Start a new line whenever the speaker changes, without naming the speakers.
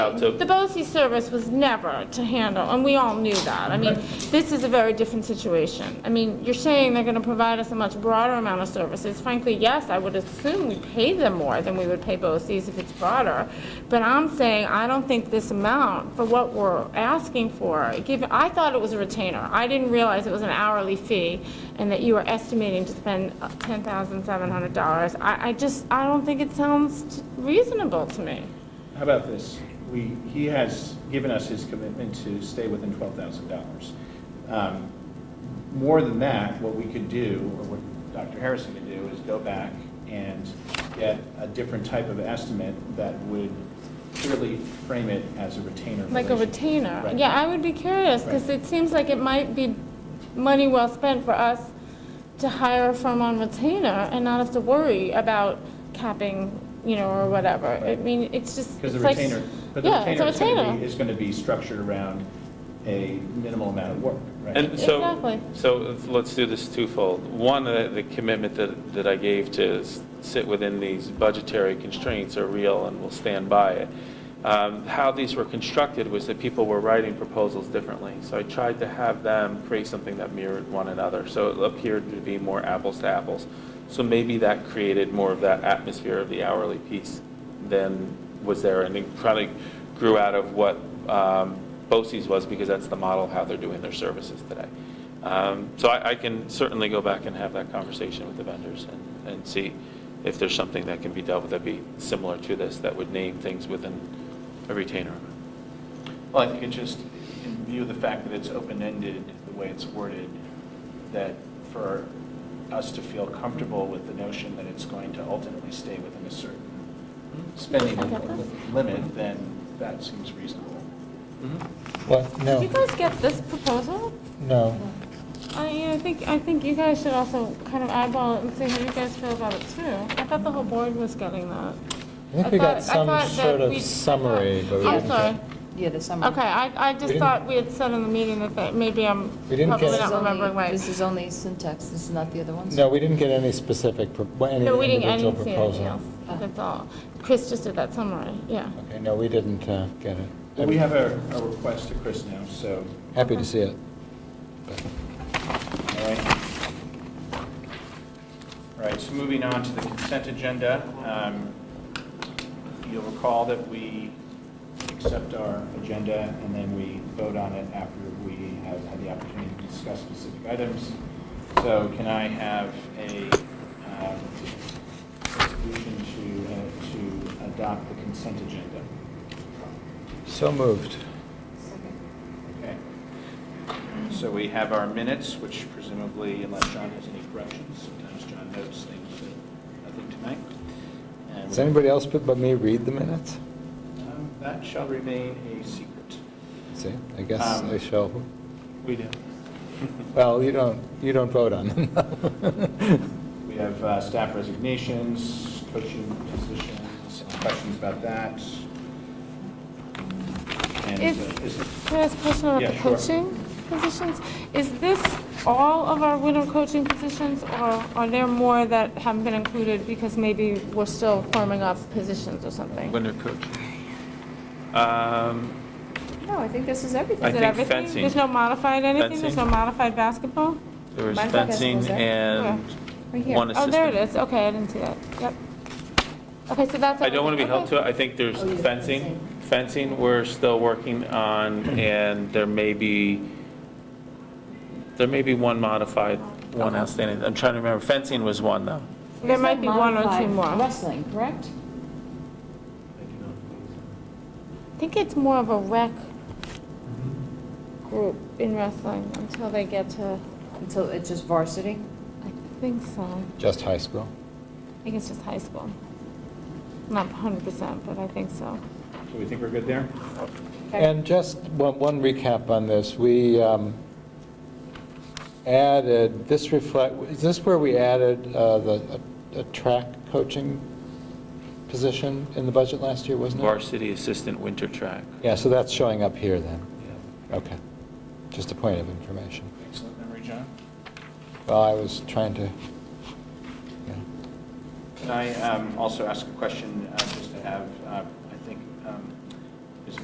out to,
The BOSI service was never to handle, and we all knew that. I mean, this is a very different situation. I mean, you're saying they're going to provide us a much broader amount of services. Frankly, yes, I would assume we pay them more than we would pay BOSI's if it's broader. But I'm saying, I don't think this amount for what we're asking for, given, I thought it was a retainer. I didn't realize it was an hourly fee and that you were estimating to spend uh, $10,700. I, I just, I don't think it sounds reasonable to me.
How about this? We, he has given us his commitment to stay within twelve thousand dollars. Um, More than that, what we could do, or what Dr. Harrison could do, is go back and get a different type of estimate that would clearly frame it as a retainer.
Like a
relationship.
retainer?
Right.
Yeah, I would be curious, because
Right.
it seems like it might be money well spent for us to hire a firm on retainer and not have to worry about capping, you know, or whatever. I mean, it's just,
Because
it's
the
like...
retainer, but the
yeah, it's a
retainer is gonna be,
retainer.
is gonna be structured around a minimal amount of work, right?
and so,
Exactly.
so let's do this twofold. One, uh, the commitment that, that I gave to s- sit within these budgetary constraints are real and will stand by it. Um, How these were constructed was that people were writing proposals differently. So I tried to have them create something that mirrored one another, so it appeared to be more apples to apples. So maybe that created more of that atmosphere of the hourly piece than was there, and it probably grew out of what um, BOCES was, because that's the model of how they're doing their services today. Um, So I I can certainly go back and have that conversation with the vendors and- and see if there's something that can be dealt with that'd be similar to this, that would name things within a retainer.
Well, I think it just, in view of the fact that it's open-ended, the way it's worded, that for us to feel comfortable with the notion that it's going to ultimately stay within a certain spending limit, then that seems reasonable.
Mm-hmm.
What,
Did you
no,
guys get this proposal?
no.
I, I think, I think you guys should also kind of eyeball it and see how you guys feel about it, too. I thought the whole board was getting that.
I think
thought- I
we got some
thought that
sort
we- I
of
thought-
summary, but we
I'm
didn't
sorry.
get.
Yeah, the summer.
Okay, I, I
Mm-hmm. We
just
didn't-
thought we had said in the meeting that that maybe I'm
We didn't
probably
get-
not remembering
This
right.
is only syntax, this is not the other ones?
No, we didn't get any specific, pro- well, any
No, we didn't, I
individual
didn't see anything
proposal.
else. That's all. Chris just did that summary, yeah.
Okay, no, we didn't uh, get it.
We have a, a request to Chris now, so,
Happy to see it.
all right. All right, so moving on to the consent agenda. um, You'll recall that we accept our agenda and then we vote on it after we have had the opportunity to discuss specific items. So can I have a um, resolution to, uh, to adopt the consent agenda?
So moved.
Okay. So we have our minutes, which presumably, unless John has any corrections, sometimes John notes things that I think tonight. And
Does anybody else but but me read the minutes?
Um, That shall remain a secret.
See, I guess I
Um,
shall,
We do.
well, you don't, you don't vote on them.
We have uh, staff resignations, coaching positions, questions about that. And
Is-
uh, is,
Can I ask a question
Yeah,
about
sure.
coaching positions? Is this all of our winter coaching positions, or are there more that haven't been included because maybe we're still forming up positions or something?
Winter coach. Um,
No, I think this is everything.
I
Is it
think
everything?
fencing.
There's no modified anything? There's no
Fencing.
modified basketball?
There was
Mine's not gonna
fencing
close there.
and
Right here.
one
Oh,
assistant.
there it is. Okay, I didn't see that. Yep. Okay, so that's.
I don't want to be held
everything.
to it. I think there's
Oh, you-
fencing. Fencing, we're still working on, and there may be, there may be one modified, one outstanding. I'm trying to remember. Fencing was one, though.
Okay. There might be one or two
Modified
more.
Wrestling, correct?
I think it's more of a rec group in wrestling until they get to,
Until it's just varsity?
I think so.
Just high school.
I think it's just high school. Not 100%, but I think so.
do we think we're good there?
Okay.
And just one one recap on this, we um, added, this reflect, is this where we added uh, the, a- a track coaching position in the budget last year, wasn't it?
Varsity assistant winter track.
Yeah, so that's showing up here then,
Yeah.
okay. Just a point of information.
Excellent memory, John.
Well, I was trying to, yeah.
Can I um, also ask a question, uh, just to have uh,